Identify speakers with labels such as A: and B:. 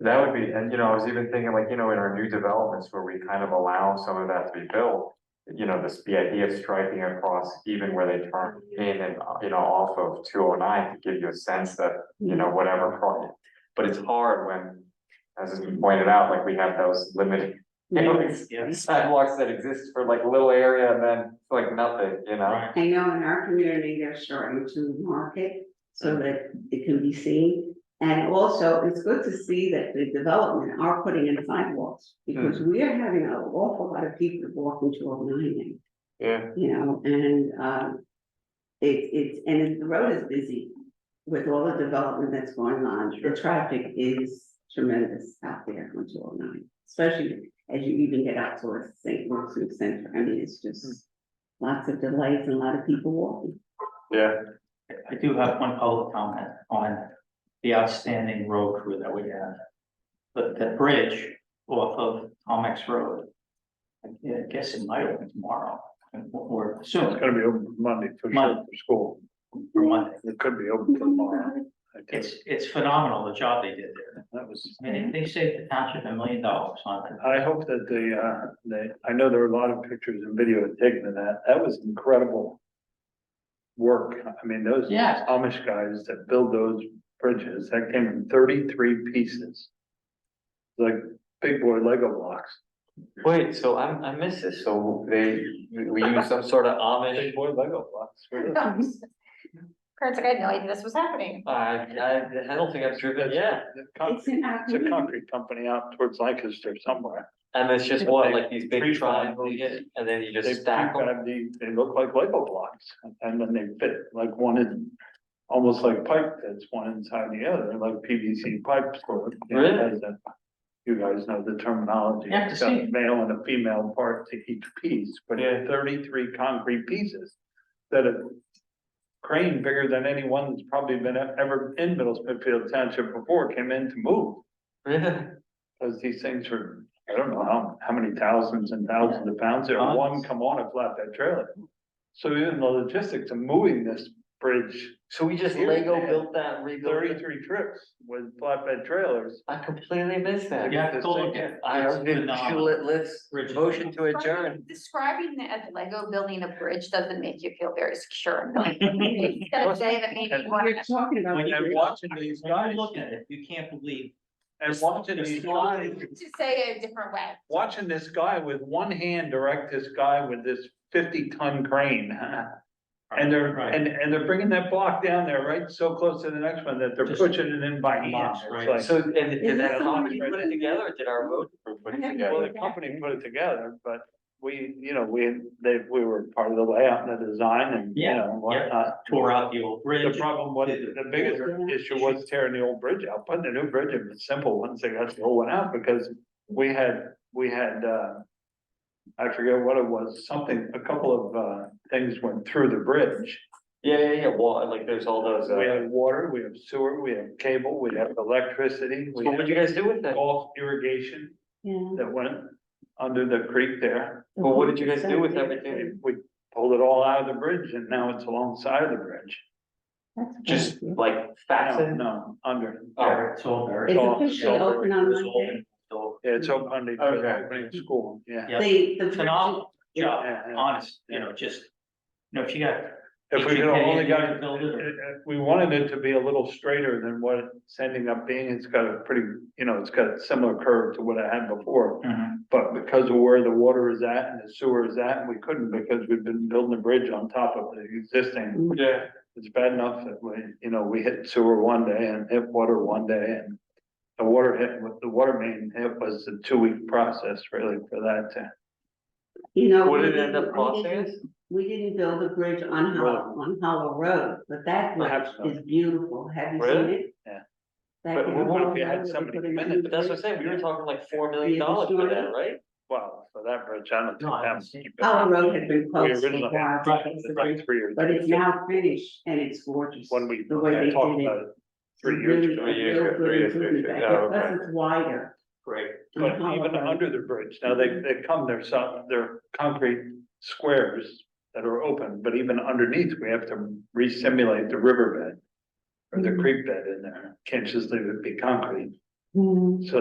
A: That would be, and you know, I was even thinking like, you know, in our new developments where we kind of allow some of that to be built. You know, this, the idea of striking across even where they turn in and, uh, you know, off of two oh nine to give you a sense that, you know, whatever. pro- But it's hard when, as has been pointed out, like we have those limited, you know, ex-
B: Yeah.
A: sidewalks that exist for like little area and then it's like nothing, you know?
B: Right.
C: I know in our community, they're starting to market so that it can be seen. And also, it's good to see that the development are putting in sidewalks, because
A: Hmm.
C: we are having an awful lot of people walking to our nine,
A: Yeah.
C: you know, and, um. It, it's, and the road is busy with all the development that's going on, the traffic is tremendous out there on two oh nine. Especially as you even get out towards St. Louis Center, I mean, it's just
A: Hmm.
C: lots of delights and a lot of people walking.
A: Yeah,
B: I do have one public comment on the outstanding road crew that we have. The, the bridge off of Tomex Road. I guess it might open tomorrow, or
D: It's
B: soon,
D: gonna be open Monday for sure,
B: Monday.
D: for school.
B: or Monday.
D: It could be open tomorrow. I guess.
B: It's, it's phenomenal, the job they did there.
D: That was,
B: I mean, they saved the township a million dollars on it.
D: I hope that they, uh, they, I know there were a lot of pictures and video taken of that. That was incredible work. I mean, those
B: Yes.
D: Amish guys that build those bridges, that came in thirty-three pieces. Like big boy Lego blocks.
A: wait, so I'm, I miss this, so they, we use some sort of Amish.
D: Big boy Lego blocks. Sure.
E: Kurt's like, I had no idea this was happening.
A: I, I, I don't think I've driven, yeah,
D: It's
C: It's in our
D: a
C: community.
D: concrete company out towards Lancaster somewhere.
A: and it's just what, like these big
D: Three
A: triangles,
D: triangles.
A: and then you
D: They
A: just stack them.
D: prefab the- they look like Lego blocks, and then they fit like one in, almost like pipe that's one inside the other, like PVC pipes. or-
A: Really?
D: as a- You guys know the terminology.
B: You have to
D: It's got
B: see
D: a Male and a female part to each piece, but
A: Yeah.
D: thirty-three concrete pieces that a crane bigger than anyone that's probably been e- ever in Middle Smithfield Township before came in to move. Cause these things were, I don't know how, how many thousands and thousands of pounds, there one
B: Tons.
D: come on a flatbed trailer. So even the logistics of moving this bridge,
A: So we just
D: Here
A: Lego
D: they had
A: built that, rebuilt it.
D: thirty-three trips with flatbed trailers.
A: I completely missed that.
B: You have to go look at it.
A: I
B: It's
A: did,
B: phenomenal.
A: let's,
B: Rich.
A: motion to adjourn.
E: Describing that a Lego building a bridge doesn't make you feel very secure. It's gonna say that maybe you
C: We're
E: wanna-
C: talking about.
D: When
C: people
D: you're watching these
B: When
D: guys
B: you look at it, you can't believe,
D: and watching these guys,
E: To say it a different way.
D: watching this guy with one hand direct this guy with this fifty-ton crane. And they're,
B: Right.
D: and, and they're bringing that block down there, right, so close to the next one that they're
B: Just
D: pushing it in by hand.
B: blocks,
D: It's
B: right.
D: like-
A: So, and did that
C: that
A: company
D: right
A: put it
D: there?
A: together, or did our road crew put it
D: Well,
A: together?
D: the company put it together, but we, you know, we, they, we were part of the layout and the design and, you
B: Yeah,
D: know, whatnot.
B: tore out the old
D: The
B: bridge.
D: problem was, the biggest issue was tearing the old bridge out, putting the new bridge in was simple once they got the old one out, because we had, we had, uh. I forget what it was, something, a couple of, uh, things went through the bridge.
A: Yeah, yeah, yeah, well, like, there's all those, uh,
D: We
A: so
D: have water, we have sewer, we have cable, we have electricity, we
A: what'd you
D: have
A: guys do with that?
D: golf irrigation
C: Yeah.
D: that went under the creek there.
A: Well, what did you guys do with everything?
D: We we pulled it all out of the bridge and now it's alongside of the bridge.
C: That's what
A: Just
C: I do.
A: like fasten?
D: No, under.
A: Oh,
B: It's all very.
C: It's
D: Oh,
C: officially
D: so-
C: open on Monday.
B: So,
D: Yeah, it's open Monday, for the
A: Okay.
D: opening of school, yeah.
B: Yeah.
C: They, the.
B: Phenomenal job,
D: Yeah, yeah.
B: honest, you know, just, you know, if you got
D: If we
B: Did you
D: could have
B: pay
D: only
B: any
D: got,
B: to build it, or-
D: uh, uh, we wanted it to be a little straighter than what it's ending up being. It's got a pretty, you know, it's got a similar curve to what I had before. But because of where the water is at and the sewer is at, we couldn't because we've been building a bridge on top of the existing
C: Mm-hmm.
A: yeah.
D: it's bad enough that we, you know, we hit sewer one day and hit water one day and. The water hit, with the water main, it was a two week process really for that to.
C: You know.
A: What
C: we
A: did it end
C: didn't-
A: up
C: we
A: costing
C: didn't-
A: us?
C: We didn't build a bridge on Hollow, on Hollow Road, but that
D: Perhaps
C: bridge is beautiful. Have you seen
A: Really?
C: it?
D: Yeah.
C: That
A: But
C: Hollow
D: what if we
C: Road
D: had
C: that they
D: somebody
C: put in
D: come in
C: the new
D: and-
A: But that's what I'm saying, we were
C: bridge.
A: talking like four million dollars for that, right?
D: Well, for that bridge, I don't
B: No, I haven't
D: think.
B: seen
D: that-
C: Hollow Road had been
D: We
C: closed for a
D: originally
C: while.
D: had
B: Right,
C: because of the
D: Like three years.
C: But it's now finished and it's gorgeous.
D: When we
C: The way they
D: had
C: did
D: talked about
C: it.
D: it, three years
C: Really
D: ago.
A: Three years
C: real
A: ago,
C: good
A: three years ago,
C: improvement
A: yeah,
C: back there,
A: okay.
C: Plus it's wider.
B: Great.
C: on
D: But
C: Hollow
D: even
C: Road.
D: under the bridge, now they, they come, they're some, they're concrete squares that are open, but even underneath, we have to re-simulate the riverbed. Or the
C: Mhm.
D: creek bed in there, can't just leave it be concrete,
C: Hmm.